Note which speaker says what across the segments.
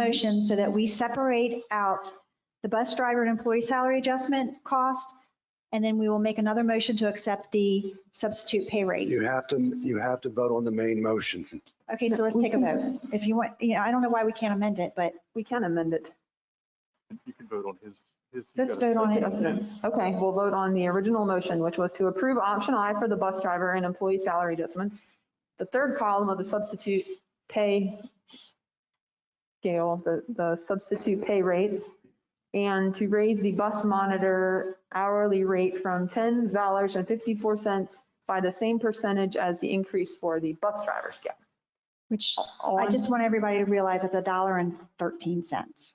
Speaker 1: motion so that we separate out the bus driver and employee salary adjustment cost, and then we will make another motion to accept the substitute pay rate.
Speaker 2: You have to, you have to vote on the main motion.
Speaker 1: Okay, so let's take a vote. If you want, you know, I don't know why we can't amend it, but
Speaker 3: We can amend it.
Speaker 4: You can vote on his, his.
Speaker 1: Let's vote on it.
Speaker 4: Yes.
Speaker 3: Okay, we'll vote on the original motion, which was to approve option I for the bus driver and employee salary adjustments. The third column of the substitute pay scale, the, the substitute pay rates, and to raise the bus monitor hourly rate from $10.54 by the same percentage as the increase for the bus driver scale.
Speaker 1: which
Speaker 3: All
Speaker 1: I
Speaker 3: in-
Speaker 1: just want everybody to realize it's a dollar and 13 cents.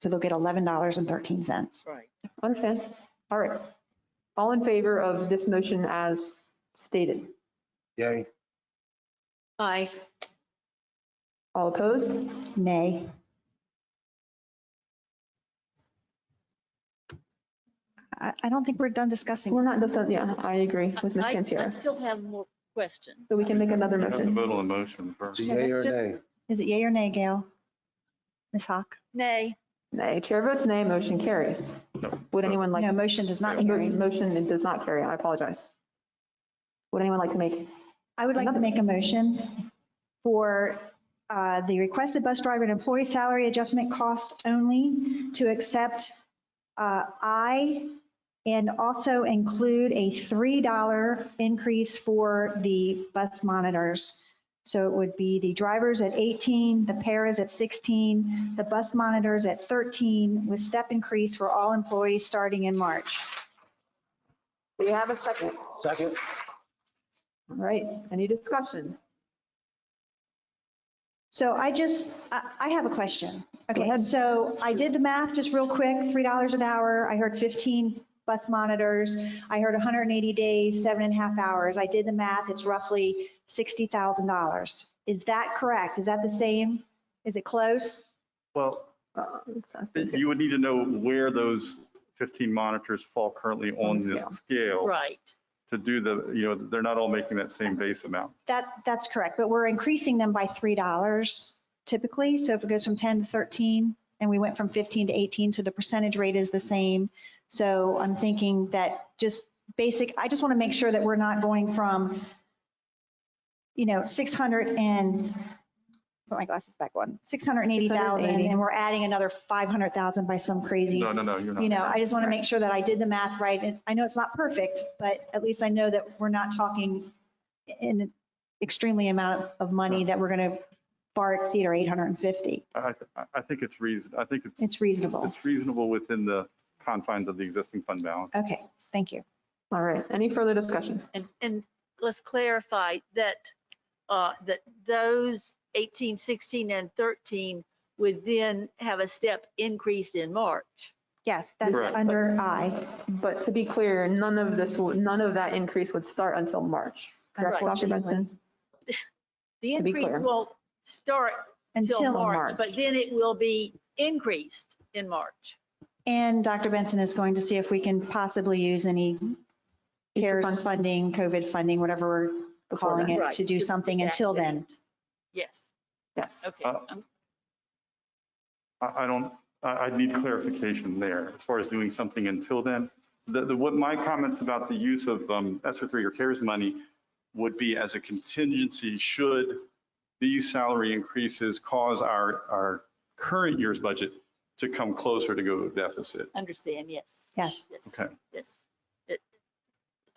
Speaker 1: So they'll get $11.13.
Speaker 3: Understand? All right. All in favor of this motion as stated?
Speaker 2: Yay,
Speaker 5: Aye.
Speaker 3: All opposed?
Speaker 1: Nay. I, I don't think we're done discussing.
Speaker 3: We're not, that's not- yeah, I agree with Ms.
Speaker 5: I- I
Speaker 3: Cantero.
Speaker 5: still have more questions.
Speaker 3: So we can make another
Speaker 4: You have to
Speaker 3: motion.
Speaker 4: vote on the motion first.
Speaker 2: So yay or
Speaker 1: Just-
Speaker 2: nay?
Speaker 1: Is it yay or nay, Gail? Ms. Hawk?
Speaker 5: Nay,
Speaker 3: Nay, chair votes nay, motion carries. Would anyone like,
Speaker 1: No, motion does not carry.
Speaker 3: motion it does not carry, I apologize. Would anyone like to make,
Speaker 1: I would like to make a motion for uh, the requested bus driver and employee salary adjustment cost only to accept uh, I and also include a $3 increase for the bus monitors. So it would be the drivers at 18, the paras at 16, the bus monitors at 13 with step increase for all employees starting in March.
Speaker 3: do you have a second? All
Speaker 2: Second?
Speaker 3: right, any discussion?
Speaker 1: So I just, I, I have a question. Okay,
Speaker 3: ahead.
Speaker 1: so I did the math just real quick, $3 an hour. I heard 15 bus monitors. I heard 180 days, seven and a half hours. I did the math. It's roughly $60,000. Is that correct? Is that the same? Is it close?
Speaker 4: Well,
Speaker 3: Uh, it's-
Speaker 4: you would need to know where those 15 monitors fall currently on
Speaker 3: the
Speaker 4: this
Speaker 3: scale.
Speaker 4: scale
Speaker 5: right.
Speaker 4: to do the, you know, they're not all making that same base amount.
Speaker 1: That, that's correct, but we're increasing them by $3 typically. So if it goes from 10 to 13 and we went from 15 to 18, so the percentage rate is the same. So I'm thinking that just basic, I just want to make sure that we're not going from, you know, 600 and, put my glasses back on, 680,000 and we're adding another 500,000 by some crazy
Speaker 4: No, no, no, you're not.
Speaker 1: you know, I just want to make sure that I did the math right. And I know it's not perfect, but at least I know that we're not talking in an extremely amount of money that we're going to far exceed our 850.
Speaker 4: I, I- I think it's reason, I think it's,
Speaker 1: It's reasonable.
Speaker 4: it's reasonable within the confines of the existing fund balance.
Speaker 1: Okay, thank you.
Speaker 3: All right, any further discussion?
Speaker 5: And, and let's clarify that, uh, that those 18, 16, and 13 would then have a step increase in March.
Speaker 1: Yes, that's
Speaker 4: Correct.
Speaker 1: under I.
Speaker 3: But to be clear, none of this, will- none of that increase would start until March, correct, Dr. Benson?
Speaker 5: The
Speaker 3: To be
Speaker 5: increase
Speaker 3: clear.
Speaker 5: won't start
Speaker 1: Until
Speaker 5: until
Speaker 3: March.
Speaker 5: March, but then it will be increased in March.
Speaker 1: And Dr. Benson is going to see if we can possibly use any
Speaker 3: Future
Speaker 1: CARES
Speaker 3: funds.
Speaker 1: funding, COVID funding, whatever we're
Speaker 3: Before
Speaker 1: calling
Speaker 3: then.
Speaker 1: it,
Speaker 5: Right,
Speaker 1: to do
Speaker 5: to
Speaker 1: something
Speaker 5: that
Speaker 1: until
Speaker 5: date.
Speaker 1: then.
Speaker 5: Yes,
Speaker 3: Yes.
Speaker 5: okay.
Speaker 4: Uh,
Speaker 5: I'm-
Speaker 4: I, I don't, I, I need clarification there as far as doing something until then. The, the, what my comments about the use of um, ESSER three or CARES money would be as a contingency, should these salary increases cause our, our current year's budget to come closer to go deficit?
Speaker 5: Understand, yes.
Speaker 1: Yes.
Speaker 4: Okay.
Speaker 5: Yes. It-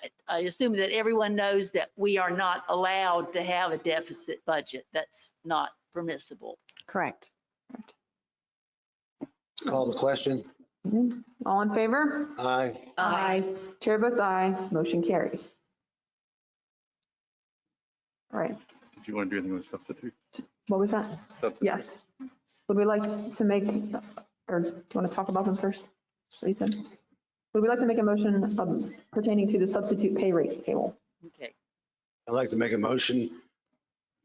Speaker 5: I- I assume that everyone knows that we are not allowed to have a deficit budget. That's not permissible.
Speaker 1: Correct.
Speaker 2: Call the question?
Speaker 3: All in favor?
Speaker 2: Aye.
Speaker 5: Uh,
Speaker 3: Chair votes aye, motion carries. All right,
Speaker 4: If you want to do anything with substitute.
Speaker 3: what was that?
Speaker 4: substitute.
Speaker 3: Yes. Would we like to make, or do you want to talk about them first? What you said? Would we like to make a motion um, pertaining to the substitute pay rate table?
Speaker 5: Okay,
Speaker 2: I'd like to make a motion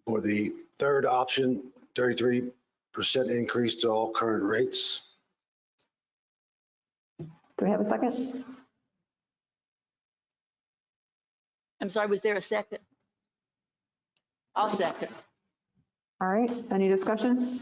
Speaker 2: for the third option, 33% increase to all current rates.
Speaker 3: Do we have a second?
Speaker 5: I'm sorry, was there a second? I'll second.
Speaker 3: All right, any discussion?